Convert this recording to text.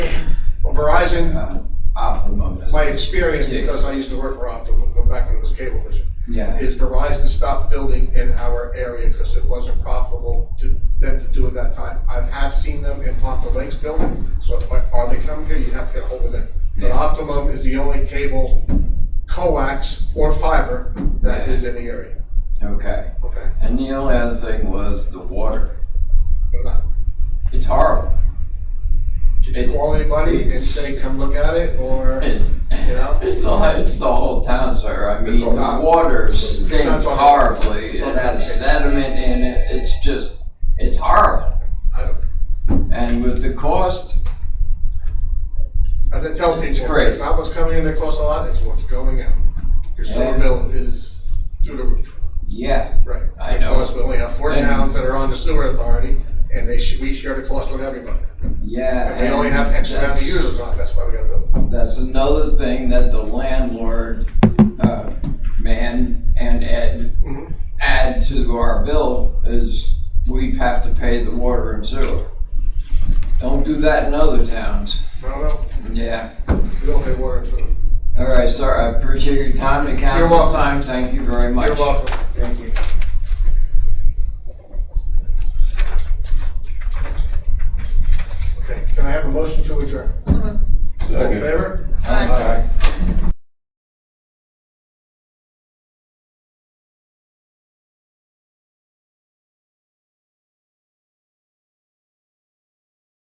Verizon, Uh, Optimum. is- my experience, because I used to work for Optimum, but back when it was Cablevision, Yeah, is Verizon stopped building in our area because it wasn't profitable to them to do at that time. I have seen them in Ponte Lakes building, so if, are they coming here, you have to get hold of them. But Yeah. Optimum is the only cable, coax, or fiber that is in the area, okay. okay? And the only other thing was the water. They're not- It's horrible. Did you call anybody and say, come look at it, or? It's, Yeah. it's the, it's the whole town, sir. I mean, It's all the not- water it's not stinks talking- horribly. it's It not talking- has sediment in it. It's just, it's horrible. I don't- And with the cost, As I tell It's people, great. it's not what's coming in that costs a lot, it's what's going out. Your sewer Yeah. bill is through the roof, yeah, right? I know. Because we only have four And- towns that are on the sewer authority, and they, sh- we share the cost with everybody. yeah. And we only have and X amount of that's- users on, it, that's why we gotta build. it. That's another thing that the landlord, uh, man and Ed Mhm. add to our bill is we have to pay the water and sewer. Don't do that in other towns. I don't know, Yeah. we don't pay water and sewer. All right, sir, I appreciate your time and council's welcome. time. Thank you very much. You're welcome. Thank you. Okay, can I have a motion to adjourn? Some of All in favor? Aye. Aye.